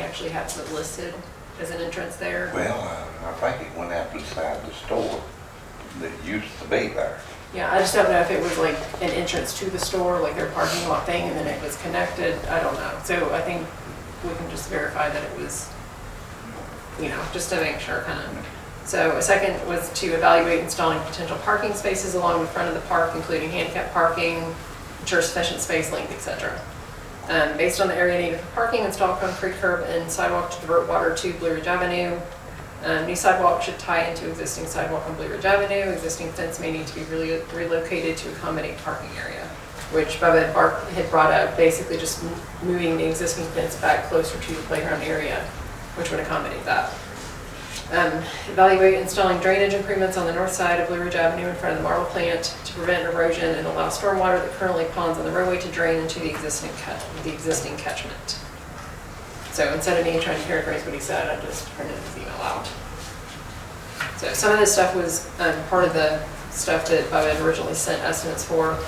actually has it listed as an entrance there. Well, uh, I think it went out beside the store that used to be there. Yeah, I just don't know if it was like an entrance to the store, like their parking lot thing, and then it was connected, I don't know. So I think we can just verify that it was, you know, just to make sure, kind of. So a second was to evaluate installing potential parking spaces along the front of the park, including handicap parking, ensure sufficient space length, et cetera. Um, Based on the area needed for parking, install concrete curb and sidewalk to divert water to Blue Ridge Avenue. Um, New sidewalk should tie into existing sidewalk on Blue Ridge Avenue. Existing fence may need to be relo- relocated to accommodate parking area, which Bubba had bar- had brought up, basically just m- moving the existing fence back closer to the playground area, which would accommodate that. Um, Evaluate installing drainage improvements on the north side of Blue Ridge Avenue in front of the marble plant to prevent erosion and allow stormwater that currently ponds on the roadway to drain into the existing cut, the existing catchment. So instead of me trying to paraphrase what he said, I just printed his email out. So some of this stuff was um, part of the stuff that Bob had originally sent estimates for.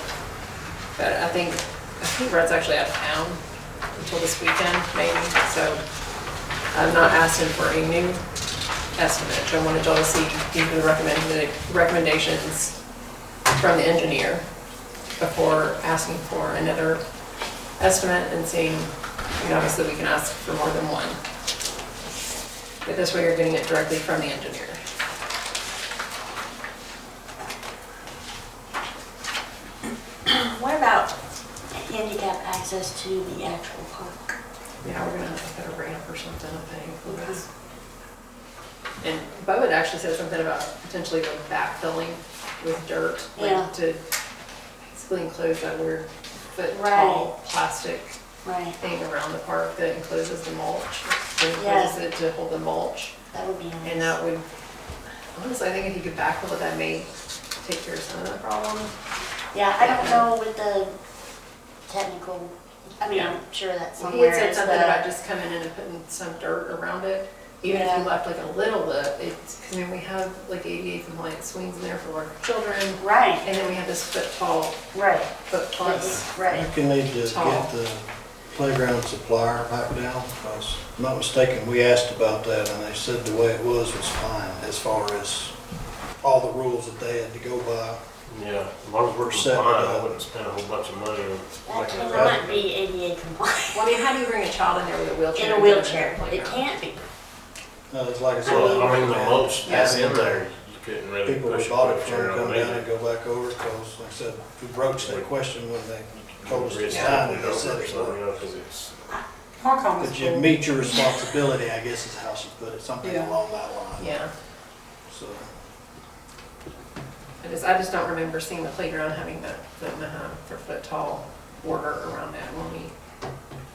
But I think, I think Brett's actually out of town until this weekend, maybe, so I'm not asking for a new estimate. I wanted y'all to see these were the recommended, recommendations from the engineer before asking for another estimate and seeing, you know, obviously we can ask for more than one. But this way you're getting it directly from the engineer. What about handicap access to the actual park? Yeah, we're gonna have to put a ramp or something, I think. because- And Bubba actually said something about potentially like backfilling with dirt, Yeah. like to basically enclose that weird foot tall plastic Right, thing around the park that encloses the mulch. that Yes. Encloses it to hold the mulch, that would be and nice. that would, honestly, I think if you could backfill it, that may take care of some of the problem. Yeah, I don't know with the technical, I mean, I'm sure that's He had somewhere said is something about the, just coming in and putting some dirt around it, even if you Yeah. left like a little bit, it's, 'cause I mean, we have like ADA compliant swings in there for our children, right, and then we have this foot tall, right, foot plus. right. think you need to Tall. get the playground supplier back down, if I was not mistaken, we asked about that, and they said the way it was was fine, as far as all the rules that they had to go by. Yeah, as long as we're Set it compliant, I up. wouldn't spend a whole bunch of money on That making it cannot be ADA compliant. Well, I mean, how do you bring a child in there with a wheelchair? In a and put them wheelchair, on the it playground? can't be. No, Uh, it's like I said. Well, I mean, the man, mulch that's in asking there, you couldn't really People push who a bought it from wheelchair come on down and it. go back over, because like I said, we broached that question when they told us to Risk sign taking it, it they over said or it something, was. you know, 'cause it's, Hong was But you cool. meet your responsibility, I guess is how she put it, something Yeah. along that line, Yeah, so. I just, I just don't remember seeing the playground having that foot and a half or foot tall border around that when we,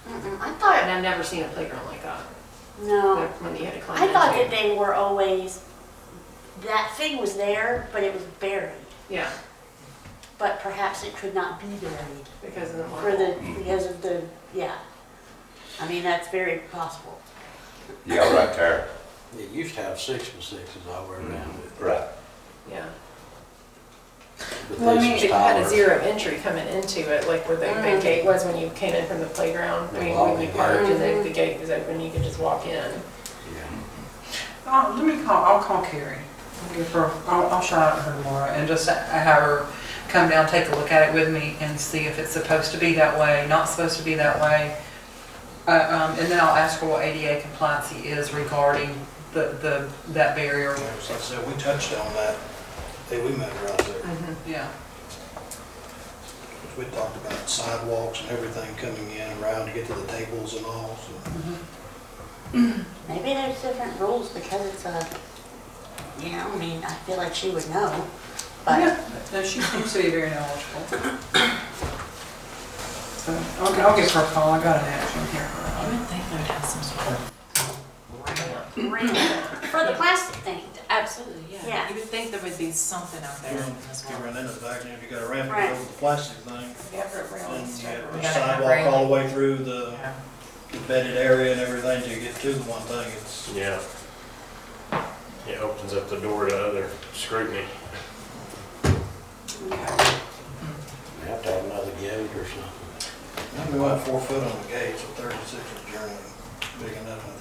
Mm-mm, I and thought, I've never seen a playground like that, no, like when you had to climb I thought that into. they were always, that thing was there, but it was buried. Yeah, But perhaps it could not be buried. because of the. For the, marble. because of the, yeah. I mean, that's very possible. Yeah, right there. It used to have six by sixes all the way around it. Right. Yeah. But Well, I this mean, is It had a taller. zero entry coming into it, like where the big Mm. gate was when you came in from the playground. I mean, when you parked and Mm-hmm. the, the gate was open, you could just walk in. Yeah. Uh, let me call, I'll call Carrie. I'll Give her, I'll, I'll shout out her Laura and just have her come down, take a look at it with me and see if it's supposed to be that way, not supposed to be that way. Uh, um, and then I'll ask her what ADA compliance he is regarding the, the, that barrier. Like I said, we touched on that, hey, we met her out there. Mm-hmm. Yeah. We talked about sidewalks and everything coming in around to get to the tables and all, so. Maybe there's different rules because it's a, you know, I mean, I feel like she would know. But, Yeah, no, she seems to be very knowledgeable. So, I'll, I'll give her a call, I got an action here. for the plastic thing, Absolutely, Yeah. yeah. You would think there would be something out there as You well. run into the back, and if you got a ramp, you Right. go with the plastic thing, and you Yeah. have We a gotta have sidewalk all railing. the way through the the bedded area and everything to get to the one thing, it's, yeah. It opens up the door to other scrutiny. You have to have another gate or something. we went four foot on the gates, so thirty-six is generally big enough.